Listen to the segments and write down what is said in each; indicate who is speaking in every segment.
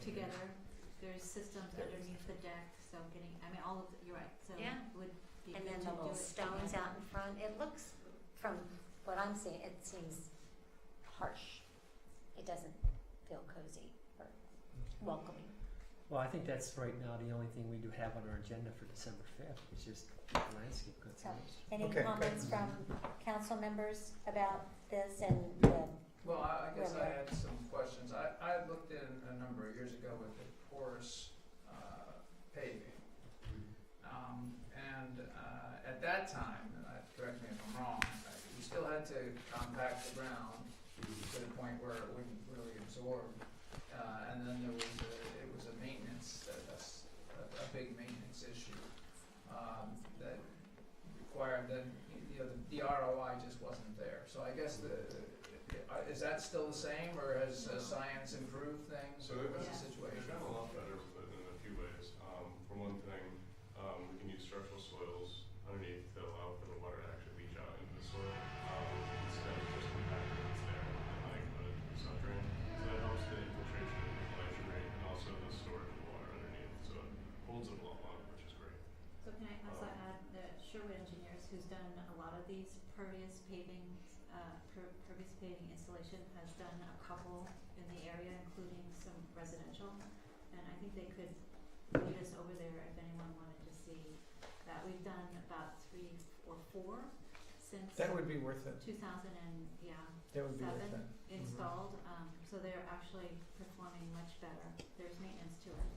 Speaker 1: together. There's systems underneath the deck, so getting, I mean, all of, the- you're right, so it
Speaker 2: Yeah.
Speaker 1: would be good
Speaker 2: And
Speaker 1: to do it.
Speaker 2: then the little stones
Speaker 1: together.
Speaker 2: out in front, it looks, from what I'm seeing, it seems harsh. It doesn't feel cozy or welcoming.
Speaker 3: Well, I think that's right now the only thing we do have on our agenda for December fifth, is just the landscape conservation.
Speaker 2: Any
Speaker 4: Okay.
Speaker 2: comments from council members about this and the,
Speaker 5: Well, I, I guess I
Speaker 2: Right.
Speaker 5: had some questions. I, I had looked in a number of years ago with the porous, uh, paving. Um, and, uh, at that time, and I, correct me if I'm wrong, uh, you still had to compact the ground to the point where it wouldn't really absorb. Uh, and then there was a, it was a maintenance, that- that's a, a big maintenance issue, um, that required that, you know, the ROI just wasn't there. So I guess the, uh, is that still the same, or has uh, science improved things,
Speaker 6: So
Speaker 5: or
Speaker 6: it
Speaker 5: what's
Speaker 1: Yeah.
Speaker 5: the
Speaker 6: They've
Speaker 5: situation?
Speaker 6: gotten a lot better but in a few ways. Um, for one thing, um, we can use structural soils underneath to allow for the water to actually leach out into the soil um, instead of just compacting it's there and letting the subdrain. So that helps the infiltration and collection rate and also the storage of water underneath. So it holds it a lot longer, which is great.
Speaker 1: So can I also add that Sherwood Engineers, who's done a lot of these pervious paving, uh, per- pervious paving installation, has done a couple in the area, including some residential. And I think they could lead us over there if anyone wanted to see that. We've done about three or four since
Speaker 4: That would be worth it.
Speaker 1: two thousand and, yeah,
Speaker 4: That would be worth
Speaker 1: Seven.
Speaker 4: it.
Speaker 1: installed, um, so they're actually performing much better. There's maintenance to it.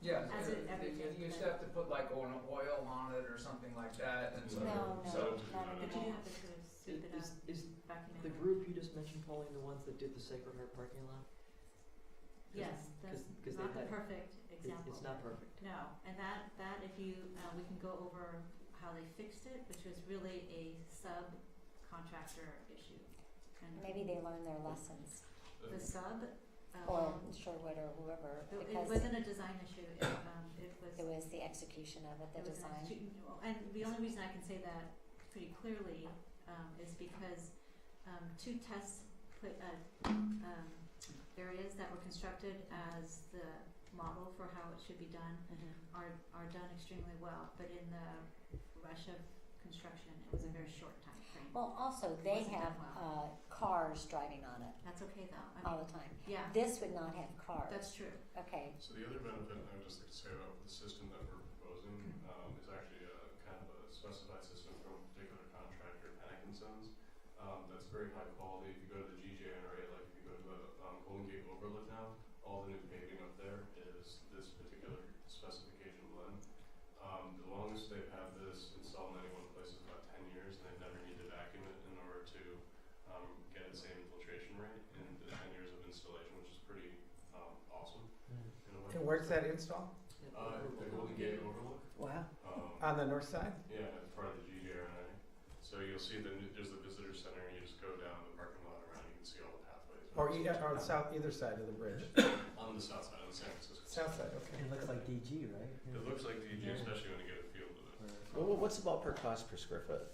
Speaker 5: Yeah,
Speaker 1: As
Speaker 5: you-
Speaker 1: it- every
Speaker 5: you- you used to
Speaker 1: time.
Speaker 5: have to put like an oil on it or something like that, and so.
Speaker 2: no, no,
Speaker 5: So-
Speaker 2: not
Speaker 1: But
Speaker 2: anymore.
Speaker 1: you have to sort of scoop it up,
Speaker 7: Is, is
Speaker 1: vacuum it
Speaker 7: the
Speaker 1: up.
Speaker 7: group you just mentioned, Pauline, the ones that did the Sacred Heart parking lot?
Speaker 1: Yes, that's
Speaker 7: 'cause- 'cause they
Speaker 1: not the
Speaker 7: had-
Speaker 1: perfect
Speaker 7: It's-
Speaker 1: example.
Speaker 7: It's not perfect.
Speaker 1: No, and that, that if you, uh, we can go over how they fixed it, which was really a subcontractor issue. And
Speaker 2: maybe they learned their lessons,
Speaker 1: the sub,
Speaker 2: or
Speaker 1: um,
Speaker 2: Sherwood or whoever,
Speaker 1: it- it
Speaker 2: because
Speaker 1: wasn't a design issue, it, um, it was.
Speaker 2: it was the execution of it,
Speaker 1: It
Speaker 2: the
Speaker 1: was an
Speaker 2: design.
Speaker 1: execu- well, And the only reason I can say that pretty clearly um, is because um, two tests put uh, um, areas that were constructed as the model for how it should be done
Speaker 2: Mm-hmm.
Speaker 1: are, are done extremely well, but in the rush of construction, it was a very short time frame.
Speaker 2: Well, also, they
Speaker 1: Wasn't
Speaker 2: have,
Speaker 1: that
Speaker 2: uh, cars driving on it
Speaker 1: That's okay though. I
Speaker 2: all
Speaker 1: mean,
Speaker 2: the time.
Speaker 1: yeah,
Speaker 2: This would not have cars,
Speaker 1: that's true.
Speaker 2: okay,
Speaker 6: So the other benefit I would just like to say about the system that we're proposing
Speaker 5: Mm.
Speaker 6: um, is actually a kind of a specified system from a particular contractor, Atkinson's. Um, that's very high quality. If you go to the GJ NRA, like if you go to the um, Golden Gate Overlook now, all the new paving up there is this particular specification blend. Um, the longest they've had this installed in any one place is about 10 years, and they've never needed to vacuum it in order to um, get the same infiltration rate in the 10 years of installation, which is pretty um, awesome.
Speaker 3: Mm,
Speaker 6: in a way.
Speaker 4: And where's that install?
Speaker 7: Yeah,
Speaker 6: Uh, the Golden Gate Overlook.
Speaker 4: Wow.
Speaker 6: Um,
Speaker 4: On the north side?
Speaker 6: yeah, it's part of the GJRNA. So you'll see the, there's the visitor center, and you just go down the parking lot around, you can see all the pathways.
Speaker 4: Or, e- or the south, either side of the bridge?
Speaker 6: On the south side, on the San Francisco.
Speaker 4: South side, okay.
Speaker 3: It looks like DG, right?
Speaker 6: It looks like Oh. DG,
Speaker 3: Yeah.
Speaker 6: especially when you get a feel of it.
Speaker 3: Well,
Speaker 4: what's the ballpark cost per square foot?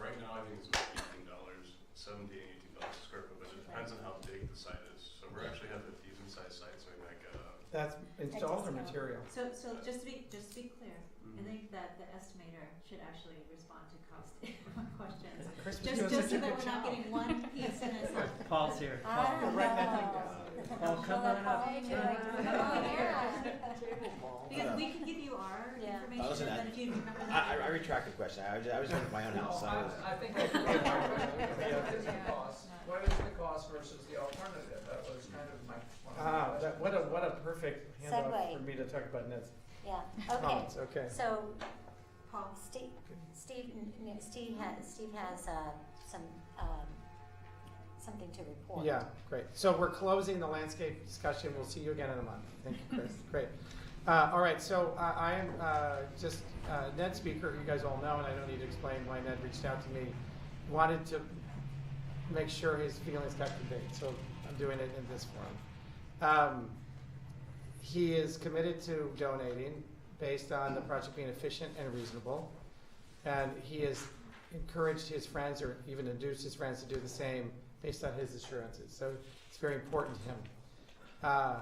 Speaker 6: Right now, I think it's about eighteen dollars, seventeen, eighteen dollars a square foot, but it depends on how big the site is. So we're actually having a decent sized site, so we might get a.
Speaker 4: That's installed or
Speaker 2: discount.
Speaker 4: material?
Speaker 1: So, so just to be, just to be clear, I think that the estimator should actually respond to cost questions.
Speaker 4: Chris was
Speaker 1: Just,
Speaker 4: doing
Speaker 1: just so
Speaker 4: such a
Speaker 1: that we're
Speaker 4: good
Speaker 1: not
Speaker 4: job.
Speaker 1: getting one piece in a
Speaker 3: Paul's here.
Speaker 2: I
Speaker 1: Ah.
Speaker 3: Paul.
Speaker 2: don't
Speaker 4: Write that thing
Speaker 2: know.
Speaker 3: Oh, come on up.
Speaker 2: Why do you like to- Oh, yeah.
Speaker 7: Table ball.
Speaker 1: Because we can give you our
Speaker 2: Yeah.
Speaker 1: information, but if you remember that.
Speaker 8: retract the question. I was, I was looking at my own house.
Speaker 5: No, I, I think I did get my question. What is the cost, what is the cost versus the alternative? That was kind of my, one of my
Speaker 4: Ah,
Speaker 5: questions.
Speaker 4: that, what a, what a perfect handoff
Speaker 2: Segue.
Speaker 4: for me to talk about Ned's
Speaker 2: Yeah, okay,
Speaker 4: comments, okay.
Speaker 2: so
Speaker 1: Paul,
Speaker 2: Steve, Steve, n- n- Steve has, Steve has, uh, some, um, something to report.
Speaker 4: Yeah, great. So we're closing the landscape discussion. We'll see you again in a month. Thank you, Chris. Great. Uh, all right, so uh, I am uh, just uh, Ned Speaker, who you guys all know, and I don't need to explain why Ned reached out to me. Wanted to make sure his feelings got conveyed, so I'm doing it in this form. Um, he is committed to donating based on the project being efficient and reasonable, and he has encouraged his friends or even induced his friends to do the same based on his assurances. So it's very important to him. Uh,